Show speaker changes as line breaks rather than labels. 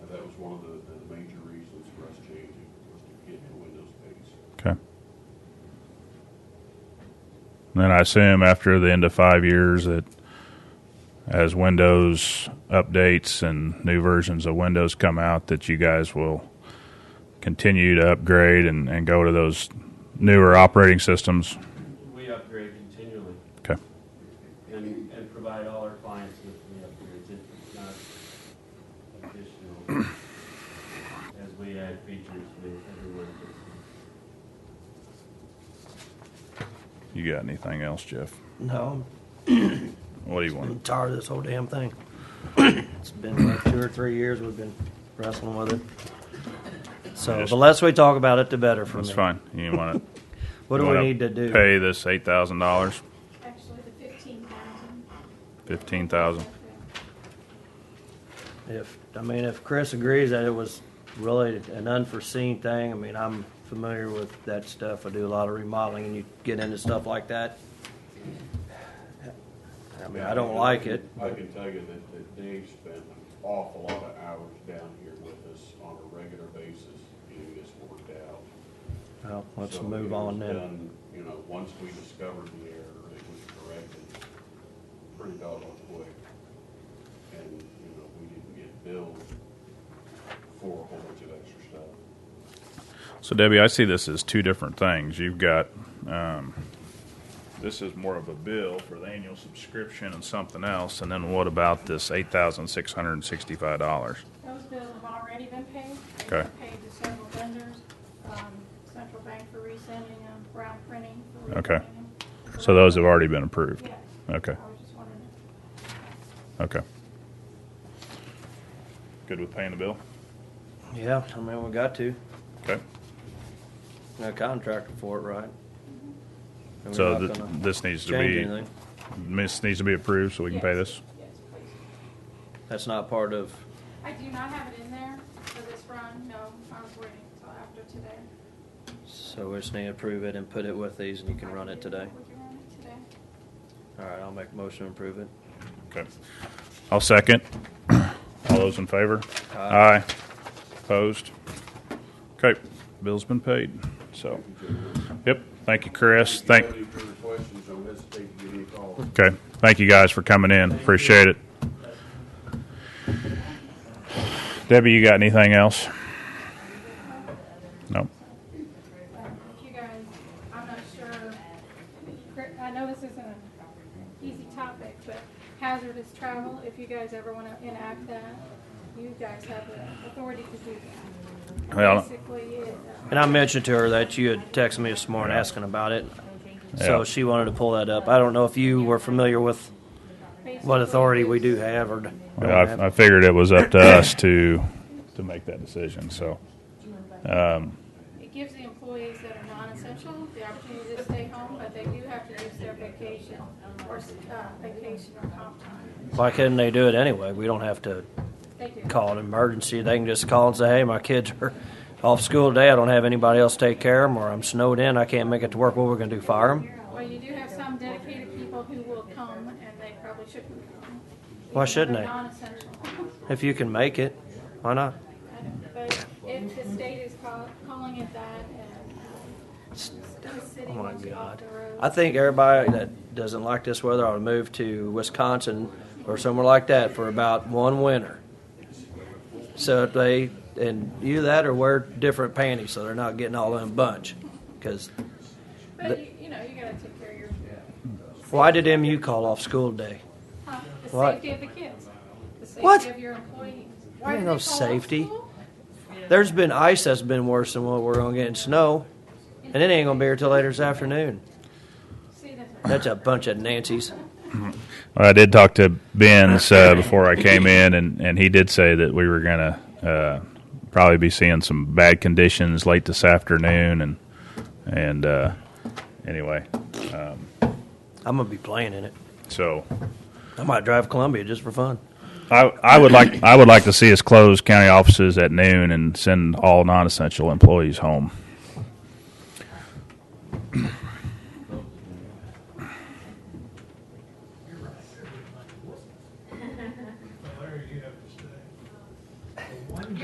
one of the, the major reasons for us changing, was to get to window space.
Okay. And then I assume after the end of five years that as Windows updates and new versions of Windows come out, that you guys will continue to upgrade and, and go to those newer operating systems.
We upgrade continually
Okay.
and, and provide all our clients with the upgrades. It's not additional. As we add features, we, everyone gets them.
You got anything else, Jeff?
No,
What do you
I'm
want?
tired of this whole damn thing. It's been like two or three years we've been wrestling with it. So the less we talk about it, the better for me.
That's fine. You want to?
What do we need to do?
Pay this eight thousand dollars,
Actually, the fifteen thousand.
fifteen thousand.
If, I mean, if Chris agrees that it was really an unforeseen thing, I mean, I'm familiar with that stuff. I do a lot of remodeling and you get into stuff like that. I mean, I don't like it.
I can tell you that, that Dave spent an awful lot of hours down here with us on a regular basis getting this worked out.
Well, let's
So it
move
was
on then.
done, You know, once we discovered the error, it was corrected pretty doggone quick. And, you know, we didn't get billed for a whole bunch of extra stuff.
So Debbie, I see this as two different things. You've got um, this is more of a bill for the annual subscription and something else, and then what about this eight thousand six hundred and sixty-five dollars?
Those bills have already been paid. They've
Okay.
been Paid to several vendors, um, Central Bank for resending them, Brown Printing for
Okay.
resending them.
So those have already been approved.
Yes. I
Okay,
was just wondering,
okay. Good with paying the bill.
Yeah, I mean, we got to.
Okay.
A contractor for it, right? And we're
So
not
th-
gonna
this needs to
change
be
anything.
this needs to be approved so we can pay
Yes.
this.
yes, please.
That's not part of,
I do not have it in there for this run, no, I was waiting until after today.
so we just need to approve it and put it with these and you can
I
run it
do.
today.
We can run it today.
All right, I'll make a motion to approve it.
Okay. I'll second. All those in favor?
Aye.
Opposed? Okay, bill's been paid, so. Yep, thank you, Chris. Thank,
If you have any further questions, don't hesitate to give me a call.
okay, thank you guys for coming in. Appreciate it. Debbie, you got anything else? No.
If you guys, I'm not sure, I know this isn't an easy topic, but hazardous travel, if you guys ever want to enact that, you guys have the authority to do that.
Well-
Basically, it, uh,
And I mentioned to her that you had texted me this morning
Yeah.
asking about it.
Yeah.
So she wanted to pull that up. I don't know if you were familiar with what
basically
authority we do have or don't
Well,
have.
I, I figured it was up to us to, to make that decision, so. Um,
It gives the employees that are non-essential the opportunity to stay home, but they do have to use their vacation or, uh, vacation or comp time.
Why couldn't they do it anyway? We don't have to
They do.
call an emergency. They can just call and say, hey, my kids are off school today. I don't have anybody else to take care of them, or I'm snowed in. I can't make it to work. What we're going to do, fire them?
Well, you do have some dedicated people who will come, and they probably shouldn't come.
Why shouldn't they?
They're non-essential.
If you can make it, why not?
I know, But if the state is call- calling it that, and um, the city
Oh my
wants you off
God.
the road.
I think everybody that doesn't like this weather ought to move to Wisconsin or somewhere like that for about one winter. So if they, and you that or wear different panties so they're not getting all in a bunch. Because
But, you you know, you gotta take care of your,
why did MU call off school today?
huh, uh, the
What?
safety of the kids. The
What?
safety of your employees. Why
There ain't
do
no
they call off
safety.
school?
There's been ice that's been worse than what we're going to get in snow. And it ain't going to be here till later this afternoon.
See,
That's
that's.
a bunch of Nancy's.
I did talk to Ben's uh, before I came in, and, and he did say that we were going to uh, probably be seeing some bad conditions late this afternoon, and and uh, anyway,
I'm going to be playing in it.
so
I might drive Columbia just for fun.
I I would like I would like to see us close county offices at noon and send all non essential employees home.